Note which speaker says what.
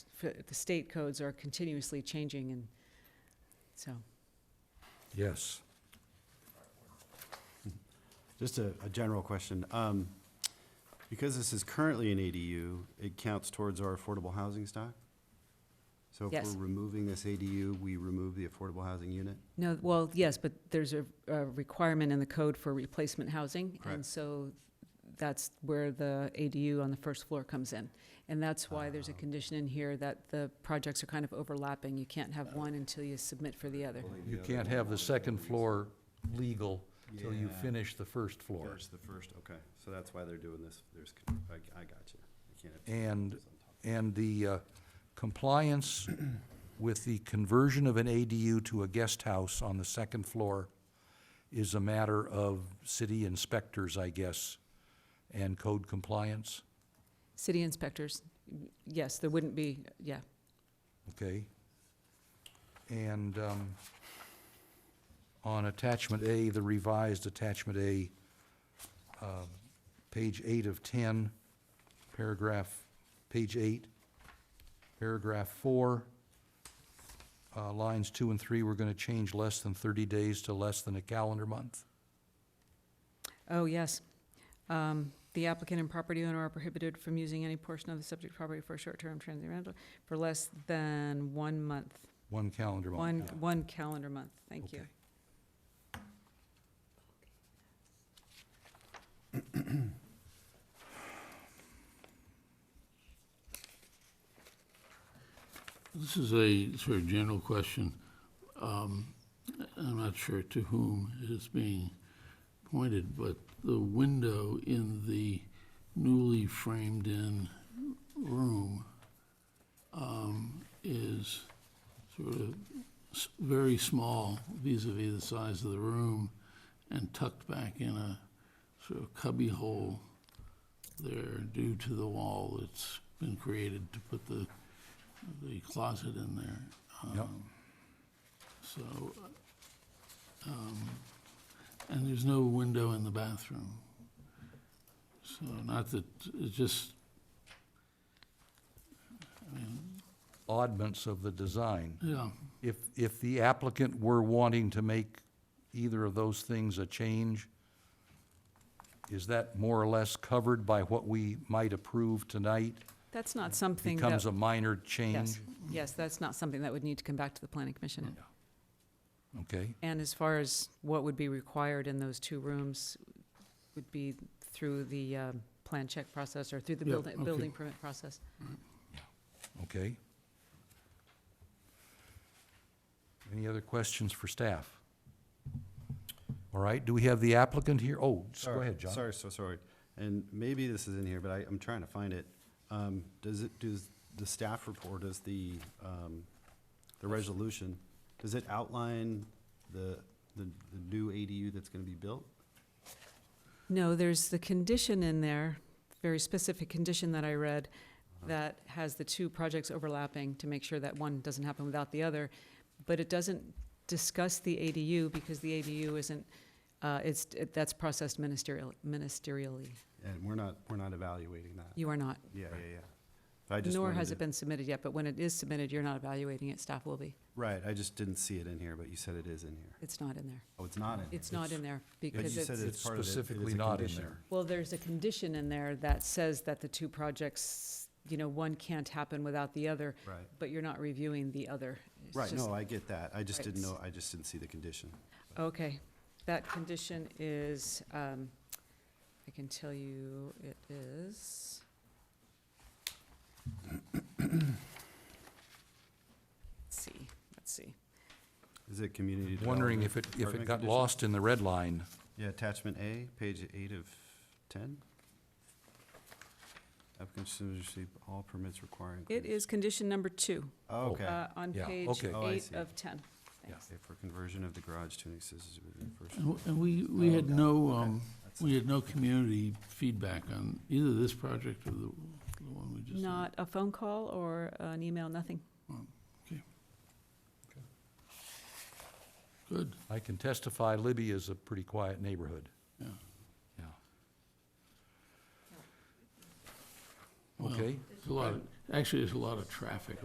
Speaker 1: f- the state codes are continuously changing and so.
Speaker 2: Yes.
Speaker 3: Just a, a general question. Um, because this is currently an ADU, it counts towards our affordable housing stock? So if
Speaker 1: Yes.
Speaker 3: we're removing this ADU, we remove the affordable housing unit?
Speaker 1: No, well, yes, but there's a, a requirement in the code for replacement housing. And
Speaker 3: Correct.
Speaker 1: so that's where the ADU on the first floor comes in. And that's why there's a condition in here that the projects are kind of overlapping. You can't have one until you submit for the other.
Speaker 2: You can't have the second floor legal till you
Speaker 3: Yeah.
Speaker 2: finish the first floor.
Speaker 3: First, the first, okay. So that's why they're doing this. There's, I, I got you. You can't have-
Speaker 2: And, and the uh, compliance with the conversion of an ADU to a guest house on the second floor is a matter of city inspectors, I guess, and code compliance,
Speaker 1: City inspectors, yes, there wouldn't be, yeah.
Speaker 2: okay? And um, on attachment A, the revised attachment A, uh, page eight of ten, paragraph, page eight, paragraph four, uh, lines two and three, we're gonna change less than thirty days to less than a calendar month.
Speaker 1: Oh, yes. Um, The applicant and property owner are prohibited from using any portion of the subject property for a short-term transient rental for less than one month,
Speaker 2: One calendar month.
Speaker 1: one,
Speaker 2: yeah.
Speaker 1: one calendar month. Thank you.
Speaker 2: Okay.
Speaker 4: This is a sort of general question. Um, I'm not sure to whom it is being pointed, but the window in the newly framed-in room um, is sort of s- very small vis-à-vis the size of the room and tucked back in a sort of cubbyhole there due to the wall that's been created to put the the closet in there.
Speaker 2: Yep.
Speaker 4: Um, So, um, and there's no window in the bathroom. So not that, it's just, I mean,
Speaker 2: Oddments of the design.
Speaker 4: yeah,
Speaker 2: If, if the applicant were wanting to make either of those things a change, is that more or less covered by what we might approve tonight?
Speaker 1: That's not something that.
Speaker 2: Becomes a minor change?
Speaker 1: Yes, yes, that's not something that would need to come back to the planning commission.
Speaker 2: Okay,
Speaker 1: And as far as what would be required in those two rooms would be through the um, plan check process or through the
Speaker 4: Yeah,
Speaker 1: building,
Speaker 4: okay.
Speaker 1: building permit process.
Speaker 2: okay. Any other questions for staff? All right, do we have the applicant here? Oh, s- go
Speaker 3: Sorry,
Speaker 2: ahead, John.
Speaker 3: Sorry, so sorry. And maybe this is in here, but I, I'm trying to find it. Um, does it, does the staff report, does the, um, the resolution, does it outline the, the, the new ADU that's gonna be built?
Speaker 1: No, there's the condition in there, very specific condition that I read,
Speaker 3: Uh-huh.
Speaker 1: that has the two projects overlapping to make sure that one doesn't happen without the other. But it doesn't discuss the ADU because the ADU isn't, uh, it's, it- that's processed ministerial, ministerially.
Speaker 3: And we're not, we're not evaluating that.
Speaker 1: You are not.
Speaker 3: Yeah, yeah, yeah. But I just
Speaker 1: Nor
Speaker 3: wanted
Speaker 1: has it
Speaker 3: to-
Speaker 1: been submitted yet, but when it is submitted, you're not evaluating it, staff will be.
Speaker 3: Right, I just didn't see it in here, but you said it is in here.
Speaker 1: It's not in there.
Speaker 3: Oh, it's not in here.
Speaker 1: It's not in there because
Speaker 3: you said
Speaker 1: it's,
Speaker 2: It's
Speaker 3: it's part of it. It is a
Speaker 2: specifically not in
Speaker 3: condition.
Speaker 2: there.
Speaker 1: well, there's a condition in there that says that the two projects, you know, one can't happen without the other,
Speaker 3: Right,
Speaker 1: but you're not reviewing the other. It's
Speaker 3: right,
Speaker 1: just-
Speaker 3: no, I get that. I just
Speaker 1: Right.
Speaker 3: didn't know, I just didn't see the condition.
Speaker 1: Okay, that condition is, um, I can tell you it is. Let's see, let's see.
Speaker 3: Is it community
Speaker 2: Wondering if it, if
Speaker 3: development
Speaker 2: it
Speaker 3: department
Speaker 2: got
Speaker 3: condition?
Speaker 2: lost in the red line.
Speaker 3: Yeah, attachment A, page eight of ten. Applicants should receive all permits requiring.
Speaker 1: It is condition number two,
Speaker 3: Oh, Okay.
Speaker 1: uh, on
Speaker 2: Yeah,
Speaker 1: page
Speaker 2: okay.
Speaker 3: Oh, I
Speaker 1: eight
Speaker 3: see.
Speaker 1: of ten. Thanks.
Speaker 3: Okay, For conversion of the garage to an accessory within the first.
Speaker 4: and w- and we, we had
Speaker 3: Oh,
Speaker 4: no,
Speaker 3: okay.
Speaker 4: um,
Speaker 3: That's-
Speaker 4: we had no community feedback on either this project or the the one we just. did.
Speaker 1: Not a phone call or an email, nothing.
Speaker 4: Good,
Speaker 2: I can testify Libby is a pretty quiet neighborhood.
Speaker 4: yeah.
Speaker 2: Yeah.
Speaker 4: Well,
Speaker 2: Okay.
Speaker 4: It's a lot, of- actually, there's a lot of traffic